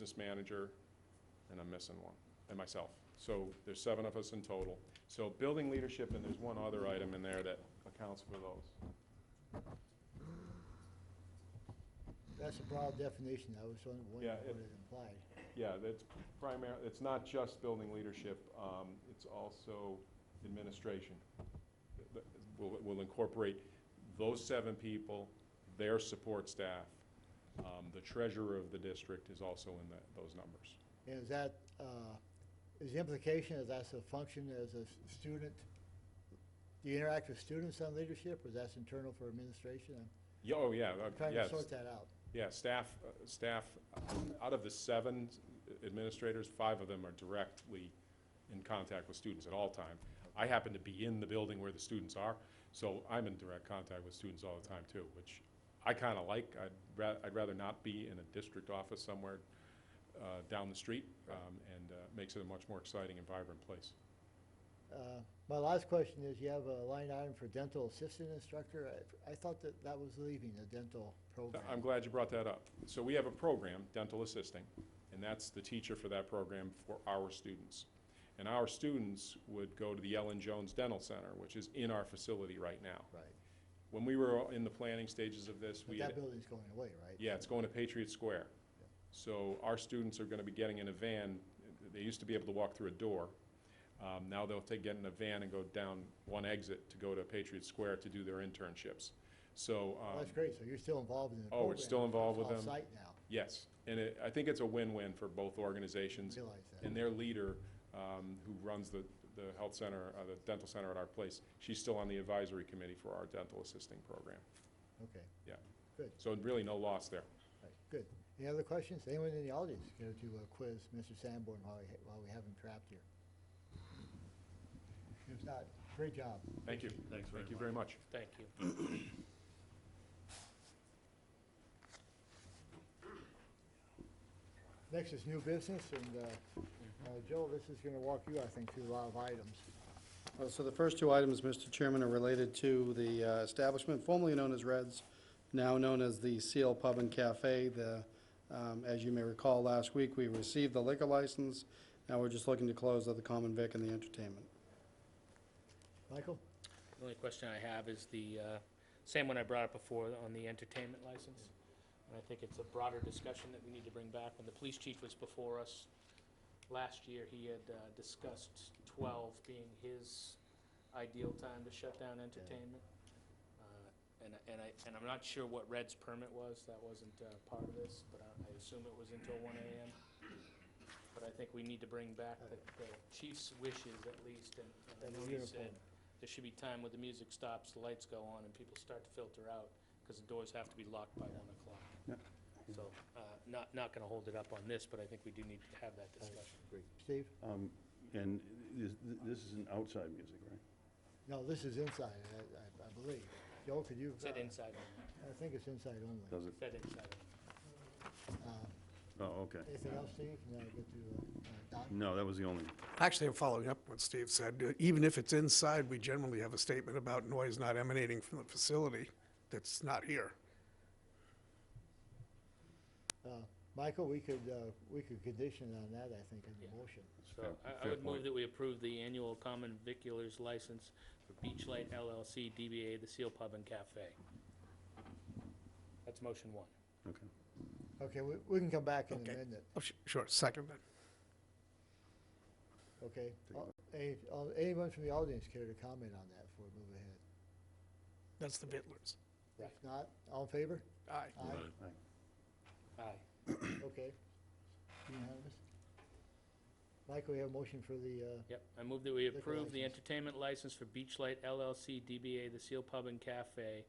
business manager, and I'm missing one, and myself. So there's seven of us in total. So building leadership, and there's one other item in there that accounts for those. That's a broad definition, I was wondering what Yeah, it- what it implied. Yeah, that's primary, it's not just building leadership, um, it's also administration. Th- We'll, we'll incorporate those seven people, their support staff. Um, the treasurer of the district is also in that, those numbers. And is that, uh, is the implication that that's a function as a s- student? Do you interact with students on leadership, or that's internal for administration? I'm Yeah, oh, yeah, uh, trying to yes. sort that out. Yeah, staff, uh, staff, uh, out of the seven administrators, five of them are directly in contact with students at all time. I happen to be in the building where the students are, so I'm in direct contact with students all the time too, which I kind of like. I'd ra- I'd rather not be in a district office somewhere uh, down the street, um, and uh, makes it a much more exciting and vibrant place. Uh, My last question is, you have a line item for dental assistant instructor. I I thought that that was leaving the dental program. I'm glad you brought that up. So we have a program, dental assisting, and that's the teacher for that program for our students. And our students would go to the Ellen Jones Dental Center, which is in our facility right now. Right. When we were in the planning stages of this, But we that had, building's going away, right? yeah, it's going to Patriot Square. Yeah. So our students are gonna be getting in a van, they used to be able to walk through a door. Um, now they'll take, get in a van and go down one exit to go to Patriot Square to do their internships. So, Well, um, That's great, so you're still involved in the oh, program. we're still involved with them. Off-site now, Yes, and it, I think it's a win-win for both organizations realize that. and their leader, um, who runs the, the health center, uh, the dental center at our place, she's still on the advisory committee for our dental assisting program. Okay, So really no loss there. right, good. Any other questions? Anyone in the audience care to uh, quiz Mr. Sanborn while we, ha- while we have him trapped here? If not, great job. Thank you. Thanks very Thank you very much. Thank you. Next is new business, and, uh, uh, Joe, this is gonna walk you, I think, through a lot of items. Uh, So the first two items, Mr. Chairman, are related to the uh, establishment formerly known as Reds, now known as the Seal Pub and Cafe. The, um, as you may recall, last week, we received the liquor license. Now we're just looking to close out the common vic and the entertainment. Michael? The only question I have is the, uh, same one I brought up before on the entertainment license. And I think it's a broader discussion that we need to bring back. When the police chief was before us last year, he had uh, discussed 12 being his ideal time to shut down entertainment. Uh, And, and I, and I'm not sure what Red's permit was, that wasn't uh, part of this, but I I assume it was until 1 AM. But I think we need to bring back the the chief's wishes at least, and and I That's know he beautiful. said there should be time where the music stops, the lights go on, and people start to filter out, because the doors have to be locked by 1 o'clock. So, uh, not, not going to hold it up on this, but I think we do need to have that discussion. Great. Steve? Um, And this, this is an outside music, right? No, this is inside, I, I- I believe. Joe, could you? Is that uh, inside only? I think it's inside only. Does it? Is that inside only? Uh, Oh, okay. Anything else, Steve? And then I get to, uh, uh, Don? No, that was the only, Actually, I'm following up what Steve said. Uh, Even if it's inside, we generally have a statement about noise not emanating from the facility that's not here. Uh, Michael, we could, uh, we could condition on that, I think, in Yeah. the motion. So Fair- I, I fair would move point. that we approve the annual common viculars license for Beachlight LLC DBA The Seal Pub and Cafe. That's motion one. okay. Okay, we, we can come back in a Okay. minute, Oh, sh- Sure, second then. okay? Take All- any- all- Anyone from the audience care to comment on that before we move ahead? That's the Bitlers. If not, all in favor? Aye. Uh, Aye, Aye. Aye. okay. Unanimous? Michael, we have a motion for the, uh, Yep, I move that we Liquor approve the license. entertainment license for Beachlight LLC DBA The Seal Pub and Cafe,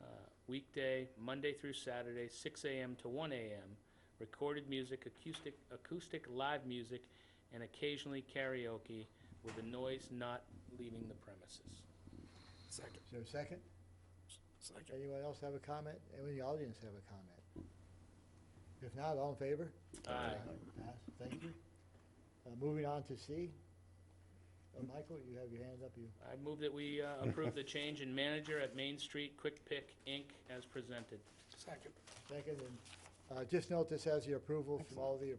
uh, weekday, Monday through Saturday, six AM to one AM, recorded music, acoustic, acoustic live music, and occasionally karaoke with the noise not leaving the premises. Second, is there a second? second. Anyone else have a comment? Anyone in the audience have a comment? If not, all in favor? Aye. Pass, thank you. Uh, moving on to C. Uh, Michael, you have your hand up, you, I move that we uh, approve the change in manager at Main Street Quick Pick, Inc., as presented. Second. second, and, uh, just note this has the approval from all the